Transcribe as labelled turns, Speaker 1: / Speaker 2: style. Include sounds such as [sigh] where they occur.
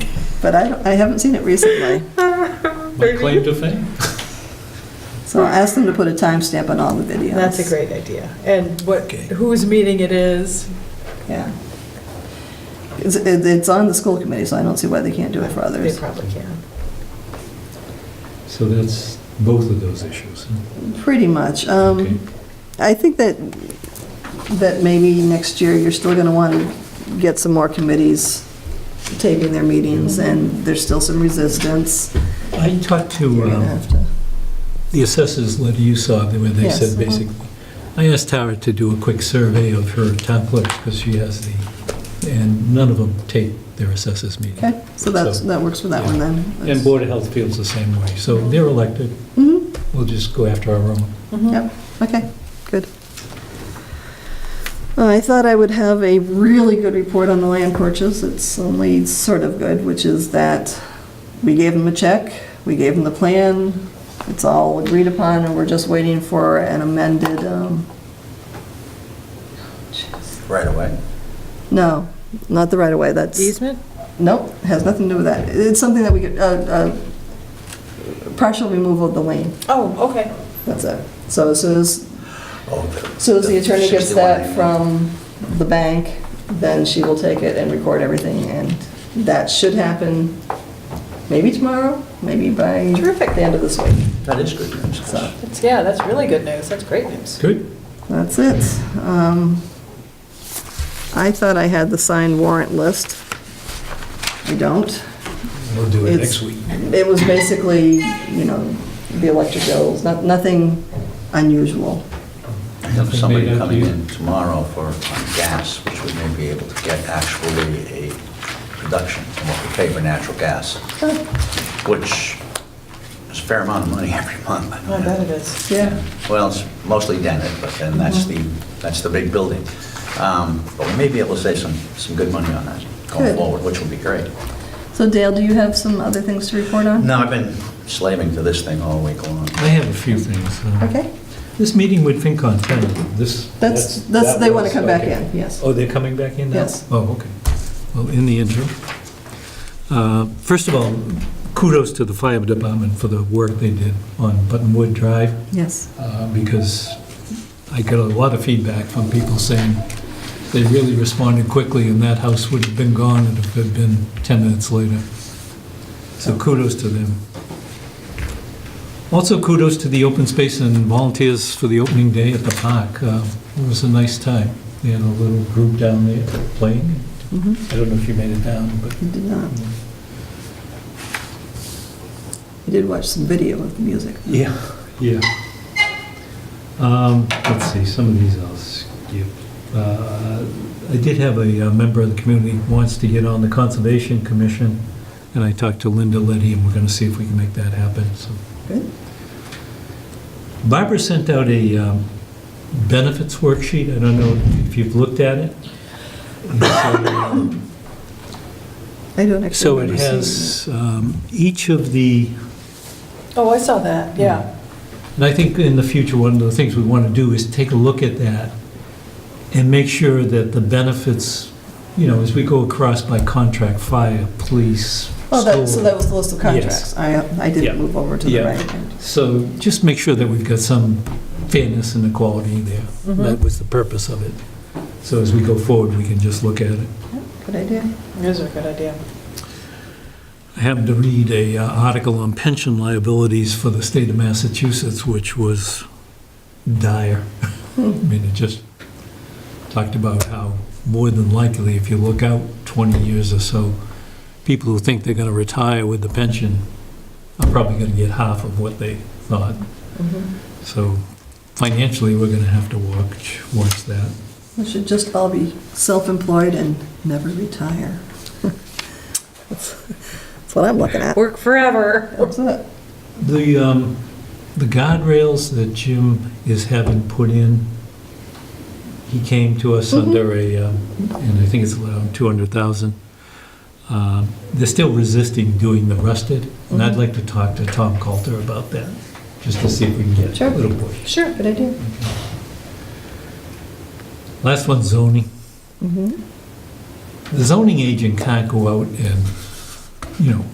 Speaker 1: but I, don't- I haven't seen it recently.
Speaker 2: My claim to fame.
Speaker 1: So I asked them to put a timestamp on all the videos.
Speaker 3: That's a great idea. And what,
Speaker 4: Okay.
Speaker 3: whose meeting it is.
Speaker 1: Yeah. It's, it- it's on the school committee, so I don't see why they can't do it for
Speaker 3: They
Speaker 1: others.
Speaker 3: probably can.
Speaker 2: So that's both of those issues. huh?
Speaker 1: Pretty much.
Speaker 2: Okay.
Speaker 1: Um, I think that, that maybe next year, you're still gonna want to get some more committees taping their meetings, and there's still some resistance.
Speaker 2: I talked to
Speaker 1: You're gonna
Speaker 2: um,
Speaker 1: have to.
Speaker 2: the assessors letter you saw, where they
Speaker 1: Yes. uh-huh.
Speaker 2: said basically, I asked Tara to do a quick survey of her town clerks, because she has the, and none of them take their assessors meeting.
Speaker 1: Okay, so that's,
Speaker 2: So-
Speaker 1: that works for that one then.
Speaker 2: And Board of Health feels the same way, so they're elected,
Speaker 1: Mhm,
Speaker 2: we'll just go after our own.
Speaker 3: Mm-hmm.
Speaker 1: Yep, okay, good. Uh, I thought I would have a really good report on the land purchase. It's only sort of good, which is that we gave them a check, we gave them the plan, it's all agreed upon, and we're just waiting for an amended, um,
Speaker 4: right away.
Speaker 1: no, not the right-of-way, that's...
Speaker 3: Easement?
Speaker 1: Nope, has nothing to do with that. It's something that we could, uh, uh, partial removal of the lane,
Speaker 3: Oh, okay.
Speaker 1: that's it. So as soon as
Speaker 4: Oh, the-
Speaker 1: So as the attorney gets
Speaker 4: 61
Speaker 1: that
Speaker 4: name.
Speaker 1: from the bank, then she will take it and record everything, and that should happen maybe tomorrow, maybe by
Speaker 3: Terrific.
Speaker 1: the end of this week.
Speaker 4: That is good news.
Speaker 1: So
Speaker 3: That's, yeah, that's really good news. That's great news.
Speaker 2: Good?
Speaker 1: that's it. Um, I thought I had the signed warrant list. I don't.
Speaker 2: We'll do
Speaker 1: it It's- next
Speaker 2: week.
Speaker 1: It was basically, you know, the electric bills, not- nothing unusual.
Speaker 4: I have somebody coming in tomorrow for on gas, which we may be able to get actually a reduction from what we pay for natural gas, which is a fair amount of money [laughs] every month.
Speaker 3: Oh, I bet it is. Mm-hmm.
Speaker 1: Yeah.
Speaker 4: Well, it's mostly Dennett, but then that's the, that's the big building. Um, But we may be able to save some, some good money on that
Speaker 1: Good.
Speaker 4: going forward, which would be great.
Speaker 1: So Dale, do you have some other things to report on?
Speaker 4: No, I've been slaving to this thing all week long.
Speaker 2: I have a few things. uh,
Speaker 1: Okay.
Speaker 2: This meeting with FinCon, tell them, this...
Speaker 1: That's- that's-
Speaker 2: that
Speaker 1: they wanna
Speaker 2: was-
Speaker 1: come back
Speaker 2: okay.
Speaker 1: in, yes.
Speaker 2: Oh, they're coming back in now?
Speaker 1: Yes.
Speaker 2: Oh, okay. Well, in the interim. Uh, First of all, kudos to the fire department for the work they did on Buttonwood Drive,
Speaker 1: Yes.
Speaker 2: uh, because I got a lot of feedback from people saying they really responded quickly, and that house would have been gone if it had been 10 minutes later. So kudos to them. Also kudos to the open space and volunteers for the opening day at the park. Uh, It was a nice time. They had a little group down there playing.
Speaker 1: Mhm.
Speaker 2: I don't know if you made it down, but
Speaker 1: You did not. You did watch some video of the music.
Speaker 2: Yeah, yeah. Um, Let's see, some of these I'll skip. Uh, I did have a uh, member of the community who wants to get on the Conservation Commission, and I talked to Linda Liddy, and we're going to see if we can make that happen, so.
Speaker 1: Good.
Speaker 2: Barbara sent out a um, benefits worksheet, I don't know if you've looked at it. And so, um,
Speaker 1: I don't actually.
Speaker 2: So it
Speaker 1: remember seeing
Speaker 2: has um, each of the
Speaker 3: Oh, I saw that, yeah.
Speaker 2: And I think in the future, one of the things we want to do is take a look at that and make sure that the benefits, you know, as we go across by contract, fire, police,
Speaker 1: Oh, that, so that
Speaker 2: school.
Speaker 1: was the list of contracts. I, uh, I
Speaker 2: Yeah.
Speaker 1: didn't move over to the
Speaker 2: Yeah.
Speaker 1: right hand.
Speaker 2: So just make sure that we've got some fairness and equality there.
Speaker 3: Mhm.
Speaker 1: Mm-hmm.
Speaker 2: That was the purpose of it. So as we go forward, we can just look at it.
Speaker 1: Good idea.
Speaker 3: Those are Mm-hmm. a good idea.
Speaker 2: I happened to read a uh, article on pension liabilities for the state of Massachusetts, which was dire. [laughs] I mean, it just talked about how more than likely, if you look out 20 years or so, people who think they're going to retire with the pension are probably going to get half of what they thought.
Speaker 3: Mhm.
Speaker 2: So financially, we're going to have to watch, watch that.
Speaker 1: We should just all be self-employed and never retire. [laughs] That's that's what I'm looking at.
Speaker 3: Work forever.
Speaker 1: That's it.
Speaker 2: The, um, the guardrails that Jim is having put in, he came to us under a, um, and I think it's around 200,000. Um, They're still resisting doing the rusted, and I'd like to talk to Tom Coulter about that, just to see if we can get
Speaker 1: Sure.
Speaker 2: a little push.
Speaker 3: Sure.
Speaker 1: Good idea.
Speaker 2: Last one, zoning.
Speaker 1: Mhm.
Speaker 2: The zoning agent can't go out and you know,